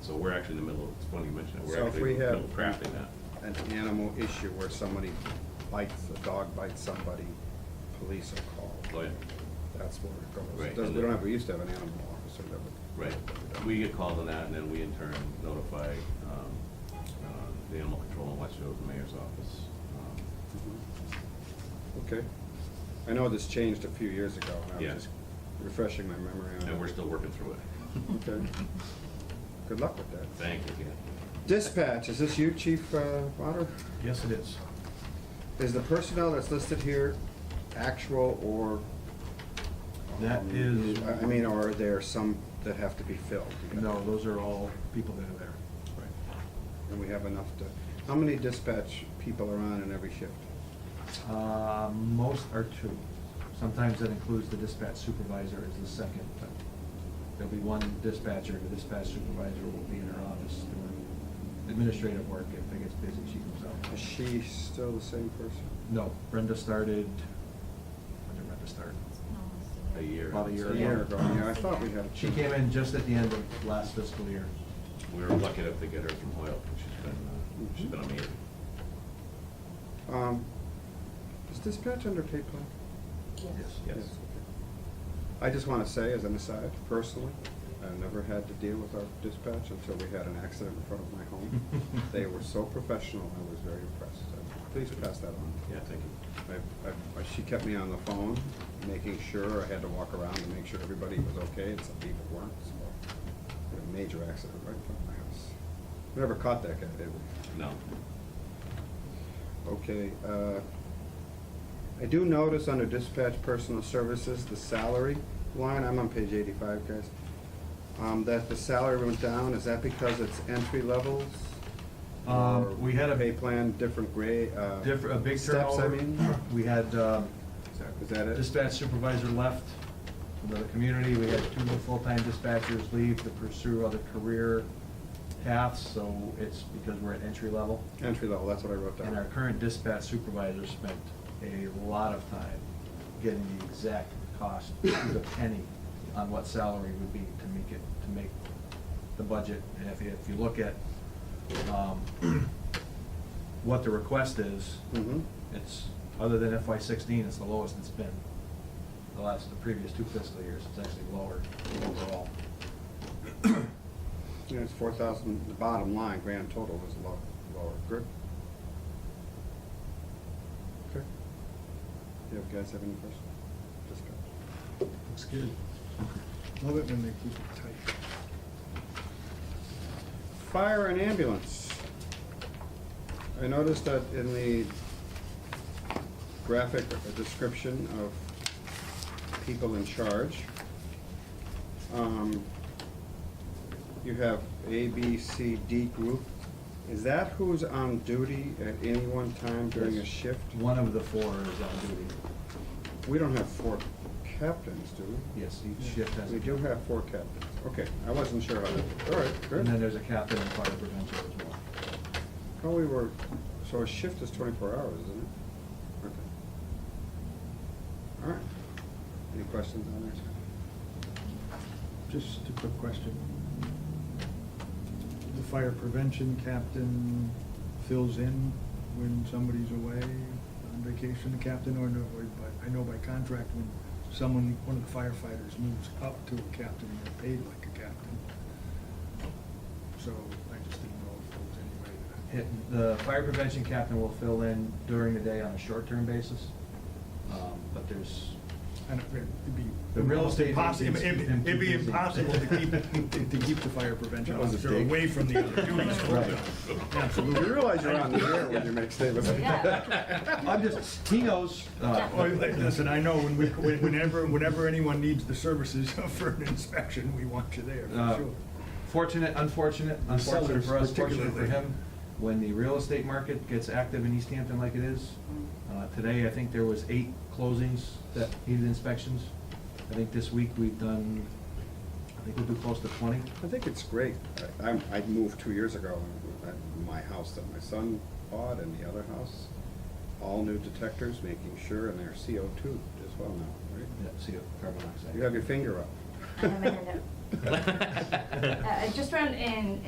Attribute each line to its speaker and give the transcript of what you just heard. Speaker 1: So we're actually in the middle, of it's funny you mention that,
Speaker 2: So
Speaker 1: we're
Speaker 2: if
Speaker 1: actually in
Speaker 2: we
Speaker 1: the
Speaker 2: have-
Speaker 1: middle of crafting that.
Speaker 2: an animal issue where somebody bites, a dog bites somebody, police are
Speaker 1: Oh,
Speaker 2: called.
Speaker 1: yeah,
Speaker 2: That's where it goes.
Speaker 1: Right,
Speaker 2: It does-
Speaker 1: and
Speaker 2: We don't
Speaker 1: then-
Speaker 2: have, we used to have an animal officer that would.
Speaker 1: right. We get called on that, and then we in turn notify um, uh, the animal control in Westfield, the mayor's office. um,
Speaker 2: Okay. I know this changed a few years ago, and I
Speaker 1: Yeah.
Speaker 2: was just refreshing my memory on it.
Speaker 1: And we're still working through it.
Speaker 2: Okay. Good luck with that.
Speaker 1: Thank you, Ken.
Speaker 2: Dispatch, is this you, Chief uh, Otter?
Speaker 3: Yes, it is.
Speaker 2: Is the personnel that's listed here actual or?
Speaker 3: That
Speaker 2: um,
Speaker 3: is-
Speaker 2: I I mean, or are there some that have to be filled?
Speaker 3: No, those are all people that are there.
Speaker 2: And we have enough to, how many dispatch people are on in every shift?
Speaker 3: Uh, Most are two. Sometimes that includes the dispatch supervisor as the second. but There'll be one dispatcher, the dispatch supervisor will be in her office doing administrative work. If it gets busy, she comes out.
Speaker 2: Is she still the same person?
Speaker 3: No, Brenda started, when did Brenda start?
Speaker 1: A year.
Speaker 3: About a year
Speaker 2: A year ago, yeah, I thought we had.
Speaker 3: She came in just at the end of last fiscal year.
Speaker 1: We were lucky enough to get her from Hoyle, and she's been, uh, she's been amazing.
Speaker 2: Um, Is dispatch under Cape Cod?
Speaker 1: Yes.
Speaker 2: okay. I just want to say, as an aside, personally, I've never had to deal with our dispatch until we had an accident in front of my home.
Speaker 3: Mm-hmm.
Speaker 2: They were so professional, I was very impressed. Uh, Please pass that on.
Speaker 1: Yeah, thank you.
Speaker 2: I- I- I- She kept me on the phone, making sure, I had to walk around to make sure everybody was okay, and some people weren't, so. I had a major accident right in front of my house. We Never caught that guy, did we?
Speaker 1: No.
Speaker 2: Okay, uh, I do notice under dispatch personal services, the salary line, I'm on page eighty-five, guys. Um, that the salary went down, is that because it's entry levels?
Speaker 3: Um,
Speaker 2: Or
Speaker 3: we had a-
Speaker 2: Pay plan, different grade, uh.
Speaker 3: Different, a big
Speaker 2: steps, I
Speaker 3: turnover.
Speaker 2: mean?
Speaker 3: We had, um,
Speaker 2: Is that it?
Speaker 3: dispatch supervisor left the community, we had two full-time dispatchers leave to pursue other career paths, so it's because we're at entry level.
Speaker 2: Entry level, that's what I wrote
Speaker 3: And our
Speaker 2: down.
Speaker 3: current dispatch supervisor spent a lot of time getting the exact cost, to the penny, on what salary would be to make it, to make the budget. And if you, if you look at, um, what the request is,
Speaker 2: Mhm.
Speaker 3: it's, other than FY sixteen, it's the lowest it's been. The last, the previous two fiscal years, it's actually lower overall.
Speaker 2: Yeah, it's four thousand, the bottom line, grand total was low, lower, good. Okay. Do you guys have any questions? Discuss.
Speaker 3: Looks good.
Speaker 4: Love it when they keep it tight.
Speaker 2: Fire and ambulance. I noticed that in the graphic description of people in charge, um, you have A, B, C, D group. Is that who's on duty at any one time during a
Speaker 3: Yes.
Speaker 2: shift?
Speaker 3: One of the four is on duty.
Speaker 2: We don't have four captains, do we?
Speaker 3: Yes, each shift has. a
Speaker 2: We do
Speaker 3: captain.
Speaker 2: have four captains. Okay, I wasn't sure how that, all right, good.
Speaker 3: And then there's a captain and fire prevention as well.
Speaker 2: Oh, we were, so a shift is twenty-four hours, isn't it? Okay. All right. Any questions on that?
Speaker 4: Just a quick question. The fire prevention captain fills in when somebody's away on vacation, the captain or no, or by- I know by contract when someone, one of the firefighters moves up to a captain, they're paid like a captain. So I just didn't know if there was any way that.
Speaker 3: Hit- The fire prevention captain will fill in during the day on a short-term basis, um, but there's,
Speaker 4: I don't- It'd be.
Speaker 3: The real
Speaker 4: almost
Speaker 3: estate
Speaker 4: impossi-
Speaker 3: agents
Speaker 4: It'd
Speaker 3: keep
Speaker 4: be-
Speaker 3: them
Speaker 4: it'd be
Speaker 3: too busy.
Speaker 4: impossible to keep, to keep the fire prevention
Speaker 2: That was a
Speaker 4: officer
Speaker 2: dig.
Speaker 4: away from the other duties.
Speaker 3: Right.
Speaker 4: Absolutely.
Speaker 2: You realize you're on the air when you make statements like that?
Speaker 3: I'm just, he knows. uh,
Speaker 4: Oh, like, Listen, I know when we, when- whenever, whenever anyone needs the services for an inspection, we want you there,
Speaker 3: Uh,
Speaker 4: for sure.
Speaker 3: Fortunate, unfortunate,
Speaker 4: The
Speaker 3: unfortunate
Speaker 4: sellers
Speaker 3: for us, fortunate for
Speaker 4: particularly.
Speaker 3: him, when the real estate market gets active in East Hampton like it is. Uh, today, I think there was eight closings that needed inspections. I think this week we've done, I think we'll do close to twenty.
Speaker 2: I think it's great. I, I'm- I moved two years ago, and I- my house that my son bought and the other house, all new detectors, making sure, and they're CO two as well now, right?
Speaker 3: Yeah, see, carbon dioxide.
Speaker 2: You have your finger up.
Speaker 5: I have my hand up. Uh, Just around in